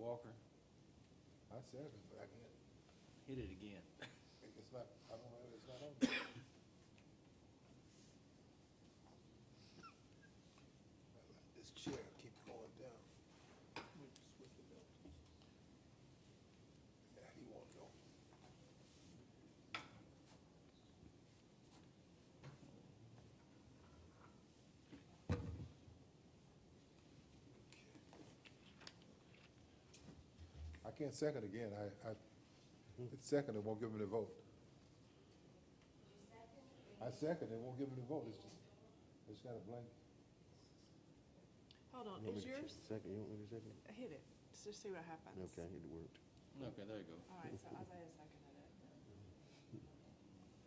Walker, I said it, but I can't, hit it again. it's not, I don't know, it's not on. there. This chair keep going down. Yeah, he won't know. I can't second again, I, I, it's second, it won't give me the vote. I second, it won't give me the vote, it's just, it's got a blank. Hold on, You want is me to check- yours? Second, you want me to second it? Hit it, let's just see what happens. Okay, it worked. Okay, there you go. All right, so Isaiah seconded it.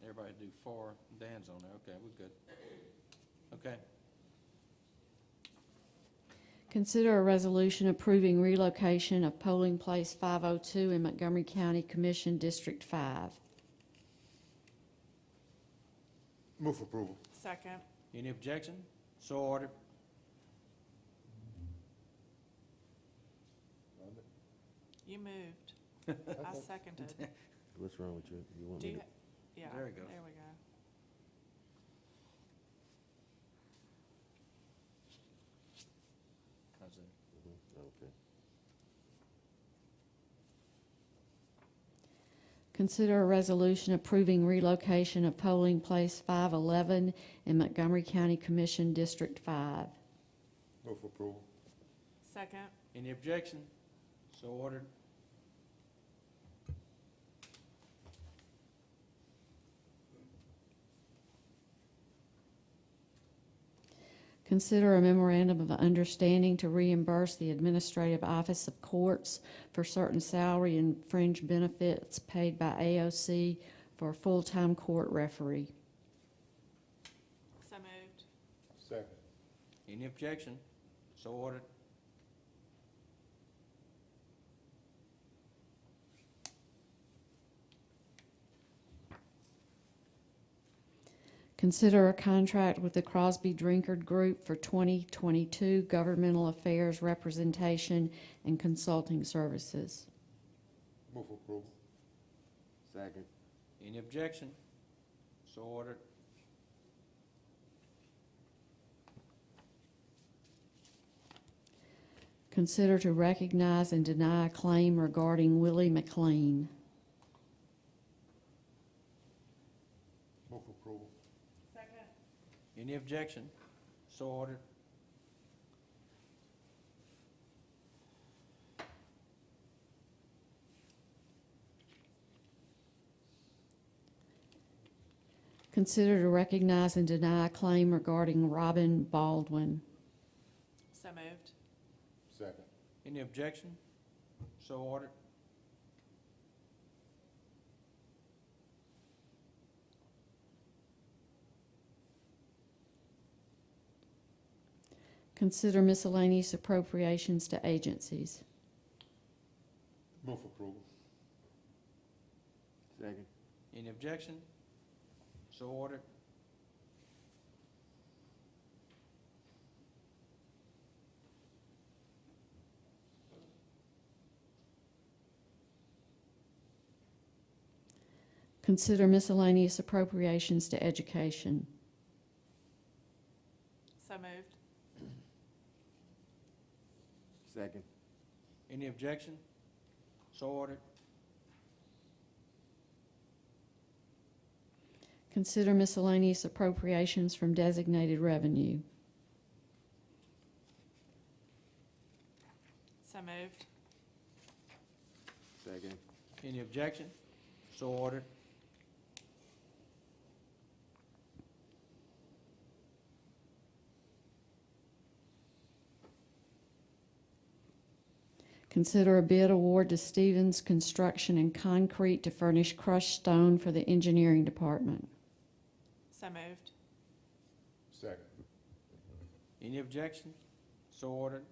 Everybody do four. Dan's on there. Okay, we're good. Okay. Consider a resolution approving relocation of polling place 502 in Montgomery County Commission District 5. Move for approval. Second, Any objection? So ordered. you moved. I seconded. What's wrong with you? You want Do me you, to? ha- yeah, There there we we go. go. I see. Mhm, Okay. Consider a resolution approving relocation of polling place 511 in Montgomery County Commission District 5. Move for approval. Second, Any objection? So ordered. Consider a memorandum of understanding to reimburse the Administrative Office of Courts for certain salary and fringe benefits paid by AOC for a full-time court referee. so moved. Second. Any objection? So ordered. Consider a contract with the Crosby Drinkard Group for 2022 governmental affairs representation and consulting services. Move for approval. Second. Any objection? So ordered. Consider to recognize and deny a claim regarding Willie McLean. Move for approval. Second. Any objection? So ordered. Consider to recognize and deny a claim regarding Robin Baldwin. So moved. Second. Any objection? So ordered. Consider miscellaneous appropriations to agencies. Move for approval. Second. Any objection? So ordered. Consider miscellaneous appropriations to education. So moved. Second. Any objection? So ordered. Consider miscellaneous appropriations from designated revenue. So moved. Second. Any objection? So ordered. Consider a bid award to Stevens Construction and Concrete to furnish crushed stone for the engineering department. So moved. Second. Any objection? So ordered.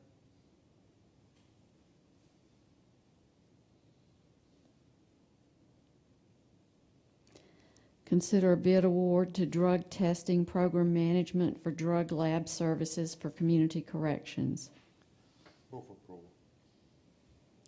Consider a bid award to drug testing program management for drug lab services for community corrections. Move for